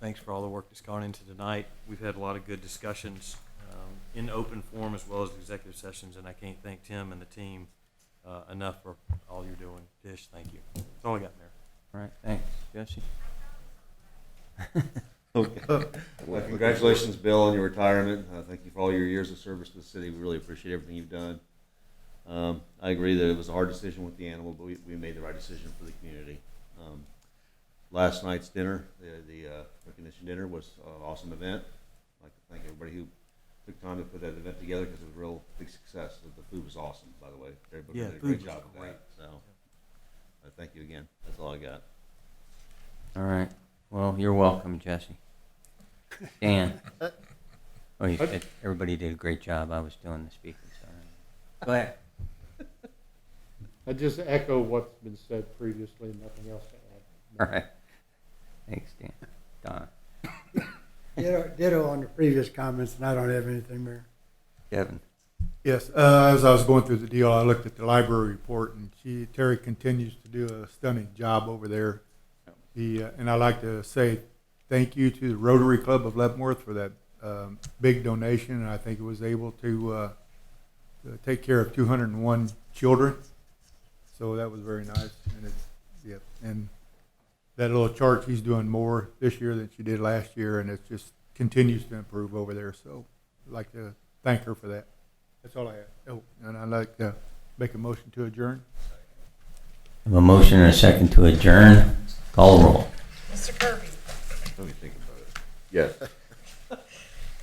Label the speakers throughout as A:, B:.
A: thanks for all the work that's gone into tonight. We've had a lot of good discussions um, in open forum as well as executive sessions, and I can't thank Tim and the team uh, enough for all you're doing. Tish, thank you. That's all I got, Mayor.
B: All right, thanks. Jesse?
C: Okay. Well, congratulations, Bill, on your retirement. Uh, thank you for all your years of service to the city. We really appreciate everything you've done. Um, I agree that it was a hard decision with the animal, but we, we made the right decision for the community. Um, last night's dinner, the, the uh, recognition dinner, was an awesome event. I'd like to thank everybody who took time to put that event together because it was a real big success. The- The food was awesome, by the way. Everybody
A: Yeah,
C: did a
A: food
C: great
A: was
C: job with
A: great.
C: that. So, uh, thank you again. That's all I got.
B: All right. Well, you're welcome, Jesse. Dan?
D: Uh,
B: Oh, you, it- everybody did a great job. I was doing the speaking, so. Go ahead.
D: I just echo what's been said previously, nothing else to
B: All
D: add.
B: right. Thanks, Dan. Don?
E: Ditto, ditto on the previous comments, and I don't have anything, Mayor.
B: Kevin?
F: Yes, uh, as I was going through the deal, I looked at the library report, and she, Terry continues to do a stunning job over there. The, uh, and I'd like to say thank you to the Rotary Club of Leavenworth for that um, big donation, and I think it was able to uh, to take care of 201 children. So that was very nice, and it's, yep. And that little chart, she's doing more this year than she did last year, and it just continues to improve over there. So I'd like to thank her for that. That's all I have. Oh, and I'd like to make a motion to adjourn.
B: I have a motion and a second to adjourn. Call roll.
G: Mr. Kirby,
C: Let me think about it. Yes.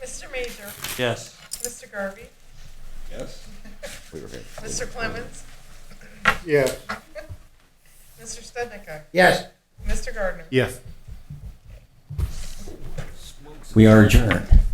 G: Mr. Major,
A: Yes.
G: Mr. Garvey,
C: Yes. We were here.
G: Mr. Clemens,
D: Yeah.
G: Mr. Stednica,
E: Yes.
G: Mr. Gardner.
F: Yes.
B: We are adjourned.